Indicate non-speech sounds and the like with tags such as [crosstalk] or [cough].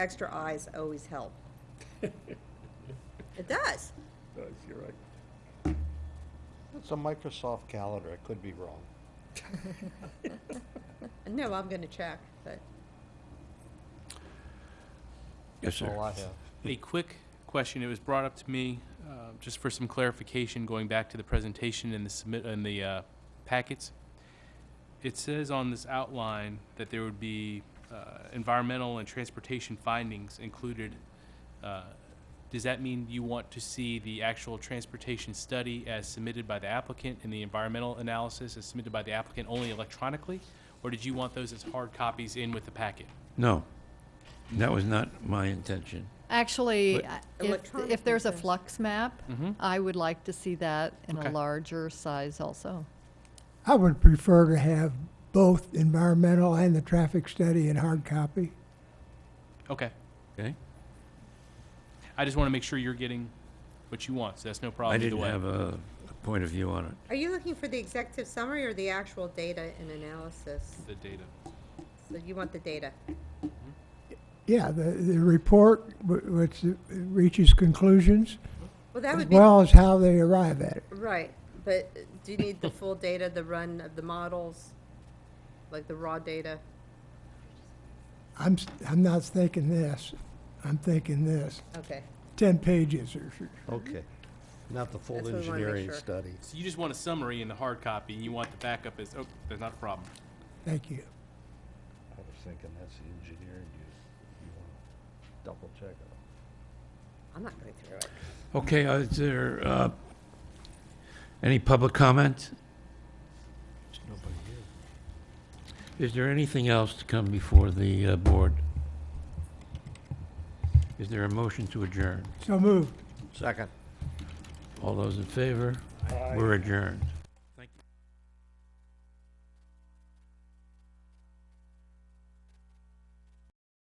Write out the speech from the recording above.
Extra eyes always help. It does. Does, you're right. It's a Microsoft calendar, I could be wrong. No, I'm gonna check, but Yes, That's all I have. A quick question, it was brought up to me, uh, just for some clarification, going back to the presentation in the submit, in the uh, packets. It says on this outline that there would be uh, environmental and transportation findings included. Uh, Does that mean you want to see the actual transportation study as submitted by the applicant and the environmental analysis as submitted by the applicant only electronically? Or did you want those as hard copies in with the packet? No, that was not my intention. Actually, But- I- if, Electronic if there's a interest. flux map, I would like to see that in a Okay. larger size also. I would prefer to have both environmental and the traffic study in hard copy. Okay, Okay? I just want to make sure you're getting what you want, so that's no I problem either didn't way. have a a point of view on it. are you looking for the executive summary or the actual data and analysis? the data. So you want the data? Yeah, the, the report wh- which reaches conclusions, Well, that as would be, well as how they arrive at it. right, but do you need the full data, the run of the models? Like the raw data? I'm, s- I'm not thinking this, I'm thinking this, Okay, ten pages or, s- [laughs] Okay. Not the full That's what we wanna make engineering sure. study. So you just want a summary in the hard copy, and you want the backup as, oh, there's not a problem. thank you. I was thinking that's the engineering you, you wanna double check it. I'm not going through it. Okay, uh, is there uh, any public comment? There's nobody here. Is there anything else to come before the uh, board? Is there a motion to adjourn? So moved. Second. All those in favor? We're adjourned.